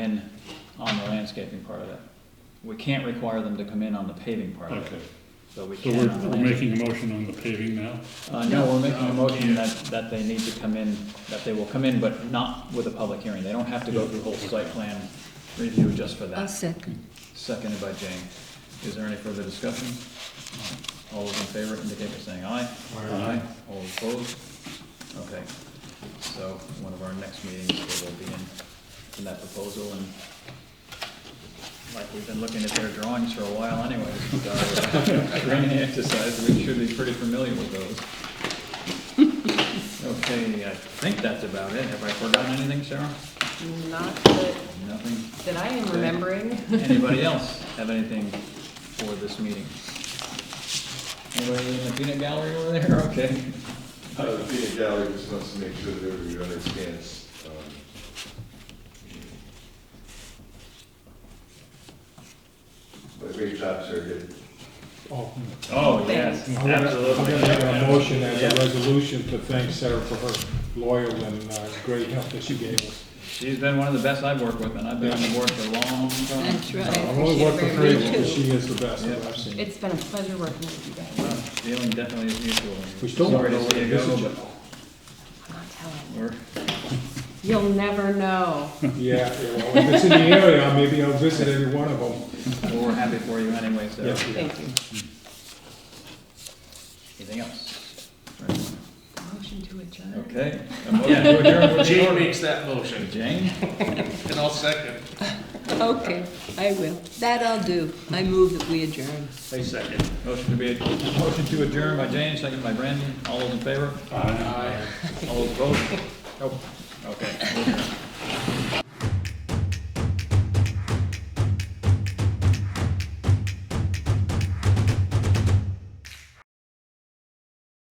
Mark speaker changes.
Speaker 1: in on the landscaping part of it. We can't require them to come in on the paving part of
Speaker 2: Okay,
Speaker 1: it, but we
Speaker 2: so
Speaker 1: can
Speaker 2: we're,
Speaker 1: on the
Speaker 2: we're
Speaker 1: landscaping.
Speaker 2: making a motion on the paving now?
Speaker 1: Uh, no, we're making a motion that, that they need to come in, that they will come in, but not with a public hearing. They don't have to go through whole site plan review just for
Speaker 3: I'll
Speaker 1: that.
Speaker 3: second.
Speaker 1: Seconded by Jane. Is there any further discussion? All those in favor indicate by saying aye. Aye. All opposed? Okay. So one of our next meetings, we will be in, in that proposal and like we've been looking at their drawings for a while anyways. uh, During the exercise, we should be pretty familiar with those. Okay, I think that's about it. Have I forgotten anything, Sarah?
Speaker 4: Not that,
Speaker 1: Nothing?
Speaker 4: that I am remembering.
Speaker 1: Anybody else have anything for this meeting? Anybody in the peanut gallery over there? Okay.
Speaker 5: Uh, The peanut gallery just wants to make sure that everybody understands. um, My great jobs are good.
Speaker 6: Oh,
Speaker 1: Oh,
Speaker 4: yes,
Speaker 6: I'm gonna, I'm gonna make a motion as a resolution to thank Sarah for her loyal and uh, great help that she gave us.
Speaker 1: She's been one of the best I've worked with, and I've been on the board for a long time.
Speaker 3: That's right.
Speaker 6: I've only worked for
Speaker 3: Appreciate it very
Speaker 6: three, but
Speaker 3: much.
Speaker 6: she is the best that I've seen.
Speaker 4: It's been a pleasure working with you guys.
Speaker 1: Well, Feeling definitely is mutual.
Speaker 6: We still don't
Speaker 1: Sorry
Speaker 6: know
Speaker 1: to
Speaker 6: where
Speaker 1: see
Speaker 6: to
Speaker 1: you
Speaker 6: visit
Speaker 1: go,
Speaker 6: you.
Speaker 4: I'm not telling.
Speaker 1: but we're,
Speaker 4: You'll never know.
Speaker 6: Yeah, yeah, well, if it's in the area, maybe I'll visit every one of them.
Speaker 1: well, we're happy for you anyway, so.
Speaker 6: Yes, yeah.
Speaker 4: Thank you.
Speaker 1: Anything else?
Speaker 4: Motion to adjourn.
Speaker 1: Okay. a motion to adjourn with
Speaker 7: Jane
Speaker 1: Jordan.
Speaker 7: makes that motion,
Speaker 1: Jane?
Speaker 7: and I'll second.
Speaker 3: Okay, I will. That I'll do. I move that we adjourn.
Speaker 7: I second.
Speaker 1: Motion to be, motion to adjourn by Jane, second by Brandon. All those in favor?
Speaker 2: Aye.
Speaker 1: All those opposed? Nope. Okay. we're adjourned.